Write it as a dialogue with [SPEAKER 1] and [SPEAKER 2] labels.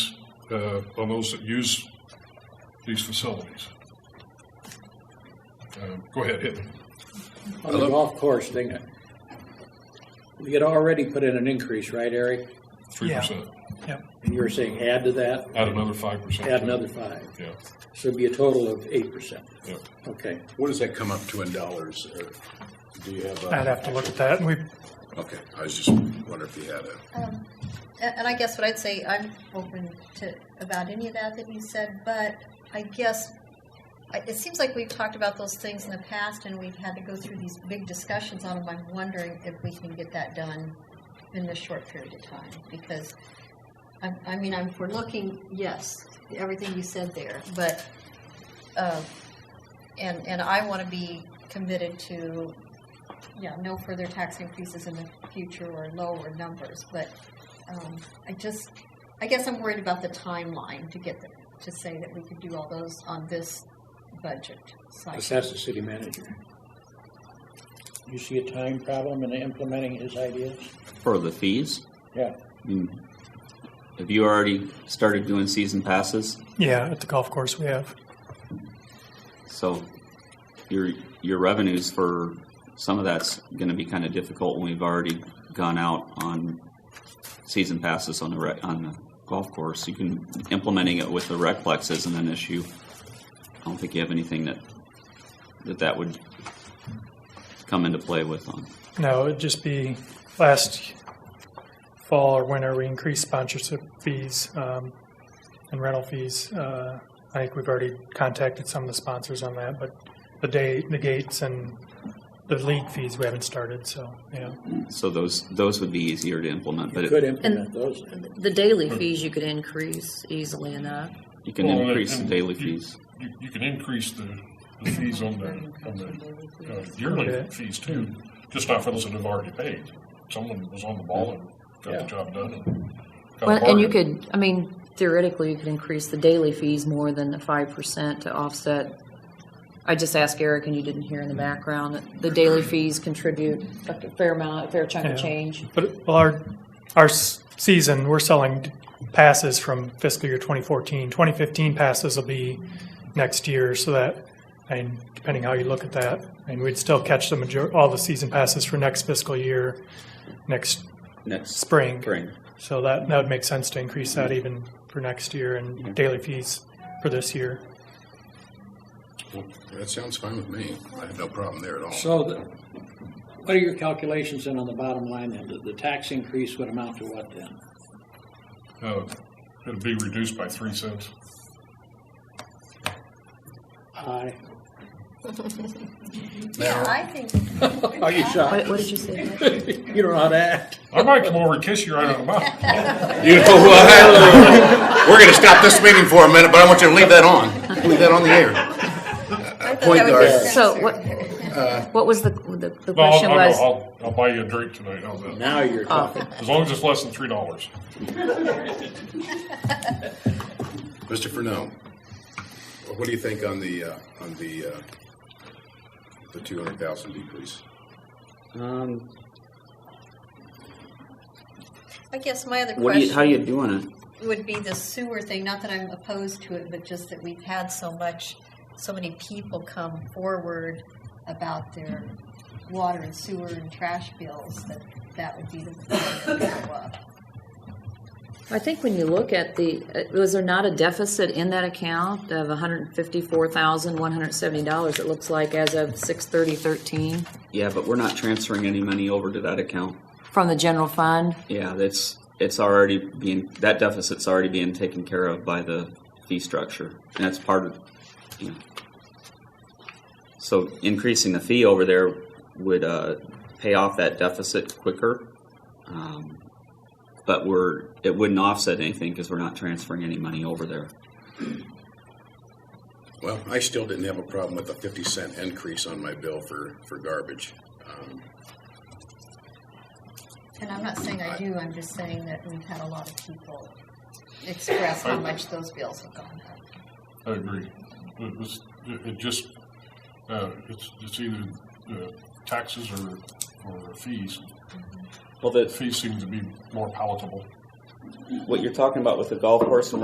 [SPEAKER 1] uh, on those that use these facilities. Um, Go ahead, hit me.
[SPEAKER 2] On the golf course thing, we had already put in an increase, right, Eric?
[SPEAKER 1] Three percent,
[SPEAKER 2] And you were saying add to that,
[SPEAKER 1] add another five percent.
[SPEAKER 2] add another five.
[SPEAKER 1] Yeah,
[SPEAKER 2] So it'd be a total of eight percent.
[SPEAKER 1] yeah.
[SPEAKER 2] Okay.
[SPEAKER 3] What does that come up to in dollars? Eric? Do you have? a-
[SPEAKER 4] I'd have to look at that, and we,
[SPEAKER 3] Okay, I was just wondering if you had a.
[SPEAKER 5] Um, a- And I guess what I'd say, I'm open to, about any of that that you said, but I guess, I- it seems like we've talked about those things in the past, and we've had to go through these big discussions on them. I'm wondering if we can get that done in this short period of time, because, I, I mean, I'm, we're looking, yes, everything you said there, but, uh, and, and I want to be committed to yeah, no further tax increases in the future or lower numbers, but um, I just, I guess I'm worried about the timeline to get, the- to say that we could do all those on this budget
[SPEAKER 2] Let's
[SPEAKER 5] cycle.
[SPEAKER 2] ask the city manager. You see a time problem in implementing his ideas?
[SPEAKER 6] For the fees?
[SPEAKER 2] Yeah.
[SPEAKER 6] I mean, Have you already started doing season passes?
[SPEAKER 4] yeah, at the golf course we have.
[SPEAKER 6] So your your revenues for some of that's going to be kind of difficult when we've already gone out on season passes on the rec, on the golf course. You can implementing it with the recplex isn't an issue. I don't think you have anything that that that would come into play with on.
[SPEAKER 4] No, it'd just be last fall or winter, we increased sponsorship fees um, and rental fees. Uh, I think we've already contacted some of the sponsors on that, but the day, the gates and the league fees, we haven't started, so, yeah.
[SPEAKER 6] So those those would be easier to implement, but
[SPEAKER 2] You
[SPEAKER 6] it,
[SPEAKER 2] could implement those. then.
[SPEAKER 7] The daily fees you could increase easily enough.
[SPEAKER 6] you can
[SPEAKER 1] Well, um, and-
[SPEAKER 6] increase the
[SPEAKER 1] and
[SPEAKER 6] daily
[SPEAKER 1] you-
[SPEAKER 6] fees.
[SPEAKER 1] You, you can increase the, the fees on the, on the uh, yearly
[SPEAKER 4] Okay.
[SPEAKER 1] fees too, just not for those that have already paid. Someone was on the ball and got the job done and got a
[SPEAKER 7] Well, and you
[SPEAKER 1] bargain.
[SPEAKER 7] could, I mean, theoretically, you could increase the daily fees more than the five percent to offset. I just asked Eric, and you didn't hear in the background, that the daily fees contribute a fair amount, a fair chunk
[SPEAKER 4] Yeah.
[SPEAKER 7] of change.
[SPEAKER 4] But well, our, our s- season, we're selling passes from fiscal year 2014. 2015 passes will be next year, so that, and depending how you look at that, and we'd still catch the major, all the season passes for next fiscal year, next
[SPEAKER 6] Next
[SPEAKER 4] spring.
[SPEAKER 6] spring.
[SPEAKER 4] So that, that would make sense to increase that even for next year and daily fees for this year.
[SPEAKER 3] Well, That sounds fine with me. I have no problem there at all.
[SPEAKER 2] So the, what are your calculations then on the bottom line then? The, the tax increase would amount to what then?
[SPEAKER 1] Uh, It'll be reduced by three cents.
[SPEAKER 2] Aye.
[SPEAKER 5] Yeah, I think,
[SPEAKER 2] Are oh, you
[SPEAKER 7] What,
[SPEAKER 2] shocked?
[SPEAKER 7] what did you say?
[SPEAKER 2] You don't know how to act.
[SPEAKER 1] I might come over and kiss you right on the mouth.
[SPEAKER 3] You know what? We're gonna stop this meeting for a minute, but I want you to leave that on. Leave that on the air.
[SPEAKER 5] I thought
[SPEAKER 3] Point
[SPEAKER 5] that would
[SPEAKER 3] guard.
[SPEAKER 5] be
[SPEAKER 7] So what,
[SPEAKER 5] necessary.
[SPEAKER 7] what was the, the, the
[SPEAKER 1] No, I'll,
[SPEAKER 7] question
[SPEAKER 1] I'll,
[SPEAKER 7] was?
[SPEAKER 1] I'll, I'll buy you a drink tonight, how's that?
[SPEAKER 2] Now you're talking.
[SPEAKER 1] As long as it's less than three dollars.
[SPEAKER 3] Mr. Furneaux, what do you think on the, uh, on the, uh, the two hundred thousand decrease?
[SPEAKER 6] Um,
[SPEAKER 5] I guess my other
[SPEAKER 6] what do you, how
[SPEAKER 5] question
[SPEAKER 6] you doing it?
[SPEAKER 5] would be the sewer thing, not that I'm opposed to it, but just that we've had so much, so many people come forward about their water and sewer and trash bills, that that would be the thing that would go up.
[SPEAKER 7] I think when you look at the, uh, was there not a deficit in that account of hundred and fifty-four thousand, one hundred and seventy dollars, it looks like, as of six thirty thirteen,
[SPEAKER 6] Yeah, but we're not transferring any money over to that account.
[SPEAKER 7] from the general fund?
[SPEAKER 6] Yeah, that's, it's already being, that deficit's already being taken care of by the fee structure. And that's part of, you know. So increasing the fee over there would, uh, pay off that deficit quicker. Um, But we're, it wouldn't offset anything because we're not transferring any money over there.
[SPEAKER 3] Well, I still didn't have a problem with a fifty cent increase on my bill for, for garbage. Um,
[SPEAKER 5] And I'm not saying I do, I'm just saying that we've had a lot of people express how much those bills have gone up.
[SPEAKER 1] I agree. It was, it it just, uh, it's, it's either, uh, taxes or, or fees.
[SPEAKER 6] Well, the,
[SPEAKER 1] Fees seem to be more palatable.
[SPEAKER 6] what you're talking about with the golf course and